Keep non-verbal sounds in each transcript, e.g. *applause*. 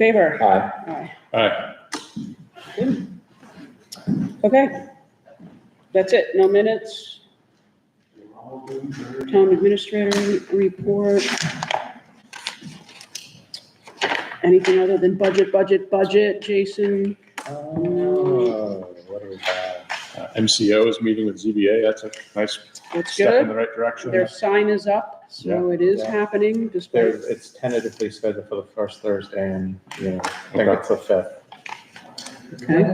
Favor? Aye. Aye. Aye. Okay. That's it. No minutes. Town administrator report. Anything other than budget, budget, budget, Jason? Oh, what do we have? Uh, MCO is meeting with ZBA. That's a nice That's step in good. the right direction. Their sign is up, so it is Yeah. happening despite, There's, it's tentatively scheduled for the first Thursday and, you know, I think it's the fifth. okay,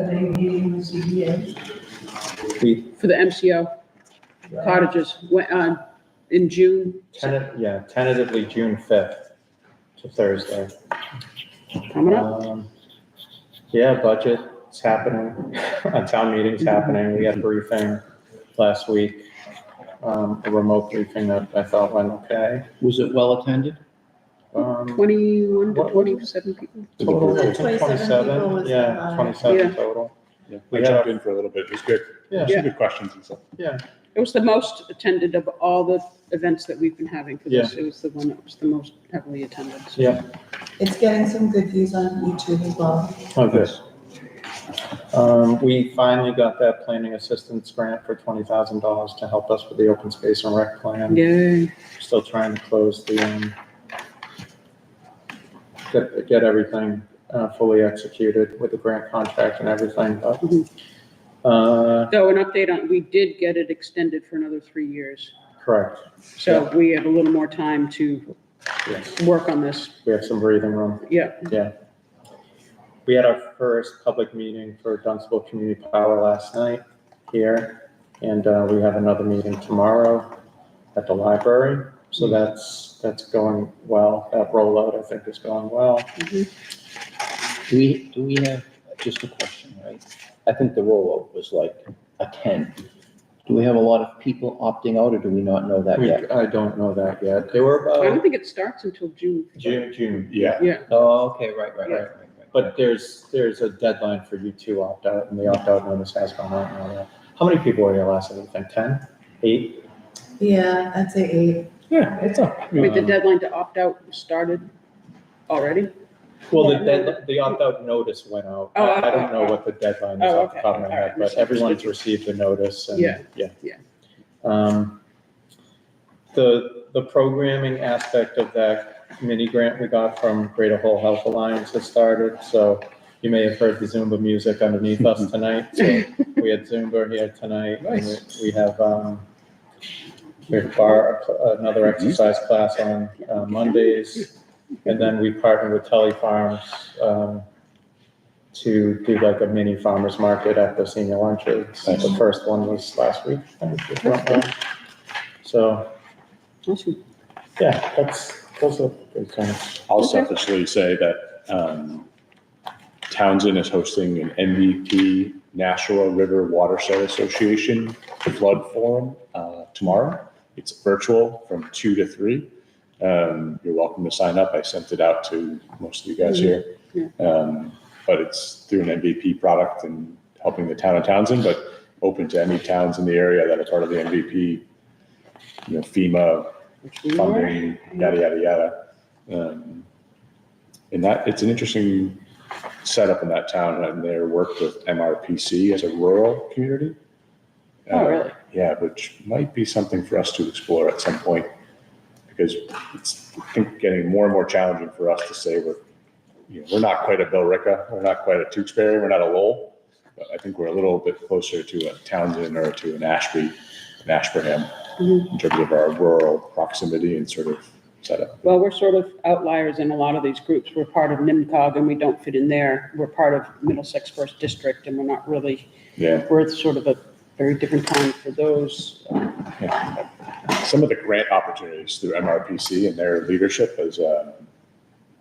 We, for the MCO cottages, went on in June. tenta- yeah, tentatively June fifth to Thursday. Coming up. Um, Yeah, budget budget's happening, *laughs* a town meeting's happening, we had a briefing last week. Um, a remote briefing that I thought went okay. Was it well attended? Um, Twenty-one to what- twenty-seven people. total Twenty-seven people was twenty-seven, uh, yeah, allowed. twenty-seven total. Yeah, We I jumped in for a little bit. It was good. Yeah, Some good questions and stuff. It was the most attended of all the events that we've been having for this. It was the one that was the most heavily attended. so. yeah. It's getting some good views on YouTube as well. Oh, good. Um, we finally got that planning assistance grant for twenty thousand dollars to help us with the open space and rec plan. Yay. Still trying to close the, um, get, get everything, uh, fully executed with the grant contract and everything, but, Mhm. uh, So an update on, we did get it extended for another three years. correct. So we have a little more time to Yes, work on this. we have some breathing room. Yeah, We had our first public meeting for Dunstable Community Power last night here, and uh, we have another meeting tomorrow at the library. So Hmm. that's, that's going well. That rollout, I think, is going well. Do we, do we have, just a question, right? I think the rollout was like a ten. Do we have a lot of people opting out or do we not know that We- yet? I don't know that yet. They were I don't about think it starts until June. Oh. June, June. Yeah. Oh, okay, right, right, right, right, right. But there's, there's a deadline for you to opt out, and the opt-out notice has gone out. and all that. How many people were here last night? I think 10, 8? Yeah, I'd say eight. Yeah, it's up. Wait, the deadline to opt out started already? Well, the, Yeah, no, dead- the opt-out notice went out. Oh, I I oh, don't know oh. what the deadline is Oh, off the top of my okay. head, but Alright, everyone's received the notice and, Yeah, yeah. yeah. Um, the, the programming aspect of that mini grant we got from Greater Whole Health Alliance has started, so you may have heard the Zumba music underneath us tonight, so we had Zumba here tonight. and we- Nice. We have, um, we have bar, another exercise class on uh, *laughs* Mondays. And then we partner with Tully Farms um, to do like a mini farmer's market at the senior lunches. The first one was last week. I think, if I'm wrong. So, Awesome. yeah, that's, those are good things. I'll Okay. selfishly say that um, Townsend is hosting an MVP Nashua River Watershed Association Flood Forum uh, tomorrow. It's virtual from two to three. Um, You're welcome to sign up. I sent it out to most of you guys here. Mhm, Um, But it's through an MVP product and helping the town of Townsend, but open to any towns in the area that are part of the MVP, you know, FEMA, Which we were. funding, yada, yada, yada. Um, And that, it's an interesting setup in that town, and they're worked with MRPC as a rural community. Oh, Uh, really? Yeah, which might be something for us to explore at some point, because it's, I think, getting more and more challenging for us to say we're, you know, we're not quite a Billerica, we're not quite a Tewksbury, we're not a Lowell, but I think we're a little bit closer to a Townsend or to an Ashby, an Ashburnham Mhm. in terms of our rural proximity and sort of setup. Well, we're sort of outliers in a lot of these groups. We're part of NIMCOG and we don't fit in there. We're part of Middlesex First District and we're not really, Yeah, we're sort of a very different time for those. some of the grant opportunities through MRPC and their leadership is, um,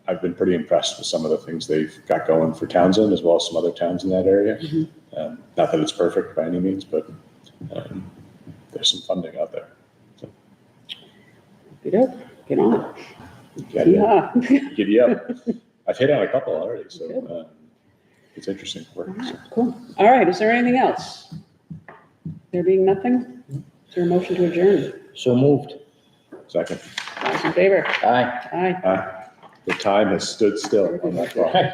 I've been pretty impressed with some of the things they've got going for Townsend as well as some other towns in that area. Mhm. Um, Not that it's perfect by any means, but um, there's some funding out there. Get up, get on. Giddy up. Yeah. Giddy up. *laughs* I've hit on a couple already, so um, it's interesting work. so. Cool. All right, is there anything else? There being nothing, is there a motion to adjourn? So moved. Second, All those in favor? Aye. Aye. uh, ah, the time has stood still on that clock.